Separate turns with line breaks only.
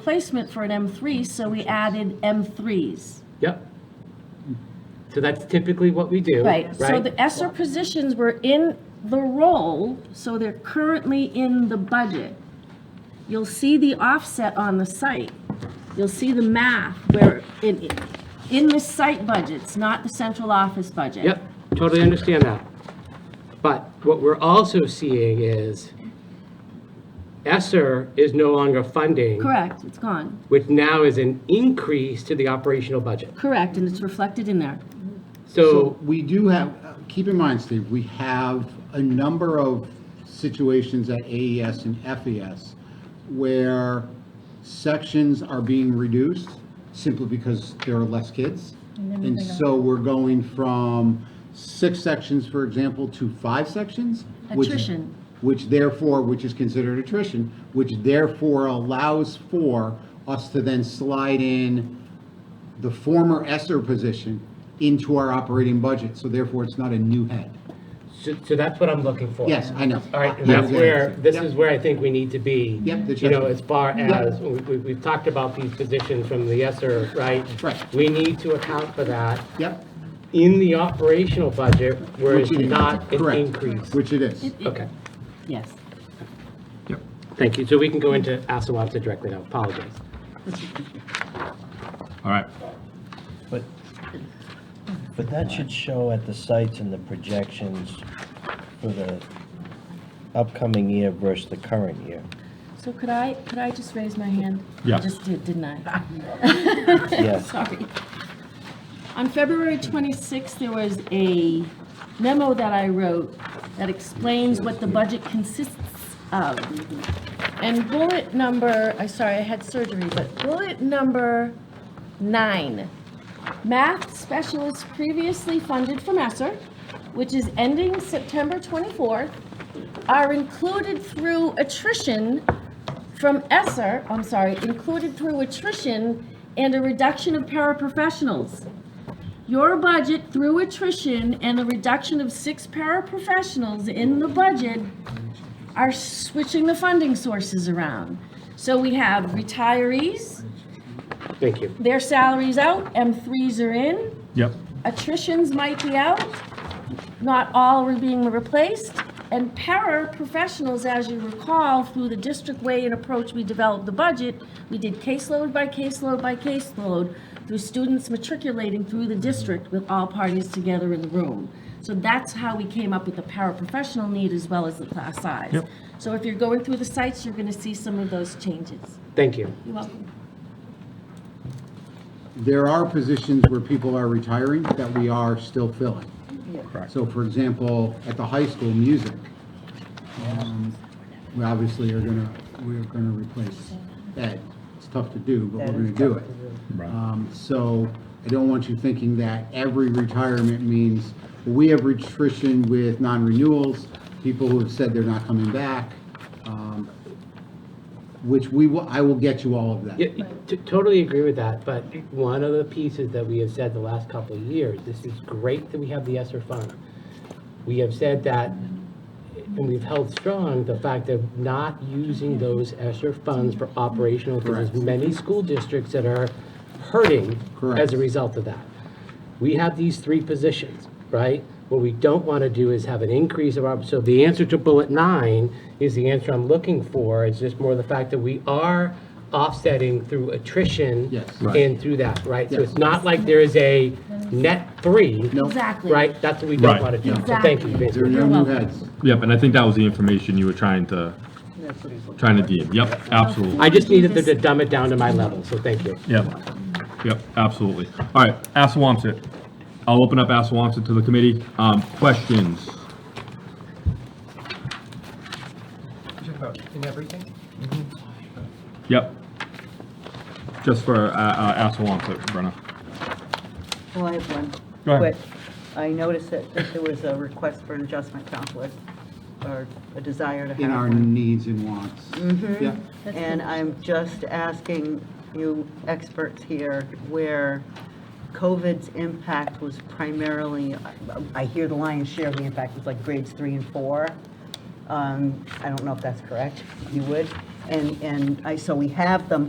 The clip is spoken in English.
replacement for an M3, so we added M3s.
Yep. So that's typically what we do,
Right,
right?
so the ESER positions were in the role, so they're currently in the budget. You'll see the offset on the site. You'll see the math where, in, in the site budgets, not the central office budget.
Yep, totally understand that. But what we're also seeing is ESSER is no longer funding.
Correct, it's gone.
Which now is an increase to the operational budget.
Correct, and it's reflected in there.
So,
we do have, keep in mind, Steve, we have a number of situations at AES and FES where sections are being reduced simply because there are less kids. And so we're going from six sections, for example, to five sections. which-
Attrition.
Which therefore, which is considered attrition, which therefore allows for us to then slide in the former ESER position into our operating budget, so therefore it's not a new head.
so so that's what I'm looking for.
Yes, I know.
All right, and
Yeah.
that's where, this
Yeah.
is where I think we need to be.
Yep, the
You know,
check.
as far
Yep.
as, we, we- we've talked about these positions from the ESSER, right?
Right.
We need to account for that
Yep,
in the operational budget where it's
Which it is.
not an
Correct.
increase.
which it is.
Okay,
Yes.
yep, thank you. So we can go into Assawamsa directly now, apologize.
All right.
But, but that should show at the sites and the projections for the upcoming year versus the current year.
So could I, could I just raise my hand?
Yeah.
I just did, didn't I?
Yes.
Sorry. On February 26th, there was a memo that I wrote that explains what the budget consists of. And bullet number, I, sorry, I had surgery, but bullet number nine. Math specialists previously funded from ESSER, which is ending September 24th, are included through attrition from ESSER, I'm sorry, included through attrition and a reduction of paraprofessionals. Your budget through attrition and a reduction of six paraprofessionals in the budget are switching the funding sources around. So we have retirees,
Thank you.
their salaries out, M3s are in,
Yep.
attritions might be out, not all are being replaced, and paraprofessionals, as you recall, through the district way and approach we developed the budget, we did caseload by caseload by caseload through students matriculating through the district with all parties together in the room. So that's how we came up with the paraprofessional need as well as the class size.
Yep.
So if you're going through the sites, you're going to see some of those changes.
Thank you.
You're welcome.
There are positions where people are retiring that we are still filling. So for example, at the high school, music, um, we obviously are gonna, we're gonna replace Ed. It's tough to do, but we're gonna do it. Um, So I don't want you thinking that every retirement means, we have attrition with non-renewals, people who have said they're not coming back, um, which we will, I will get you all of that.
Yeah, t- Totally agree with that, but one of the pieces that we have said the last couple of years, this is great that we have the ESSER fund. We have said that, and we've held strong the fact of not using those ESSER funds for operational, because there's many school districts that are hurting as
Correct.
a result of that. We have these three positions, right? What we don't want to do is have an increase of our, so the answer to bullet nine is the answer I'm looking for, is just more the fact that we are offsetting through attrition.
Yes. Right.
And through that, right? So it's not like there is a net three.
No.
Exactly.
Right? That's what we don't
Right.
want to do. So thank you,
Exactly.
There are
Vince.
no
You're
new
welcome.
heads.
Yep, and I think that was the information you were trying to, trying to deem. Yep, absolutely.
I just needed them to dumb it down to my level, so thank you.
Yep, yep, absolutely. All right, Assawamsett. I'll open up Assawamsett to the committee. Um, questions?
in everything?
Yep. Just for, uh, uh, Assawamsett, Brenna.
Well, I have one.
Go ahead.
Quick. I noticed that, that there was a request for an adjustment conflict, or a desire to have
in our
one. Mm-hmm.
needs and wants. Yeah.
And I'm just asking you experts here where COVID's impact was primarily, I- I hear the lion's share of the impact was like grades three and four. Um, I don't know if that's correct, you would? And, and I, so we have them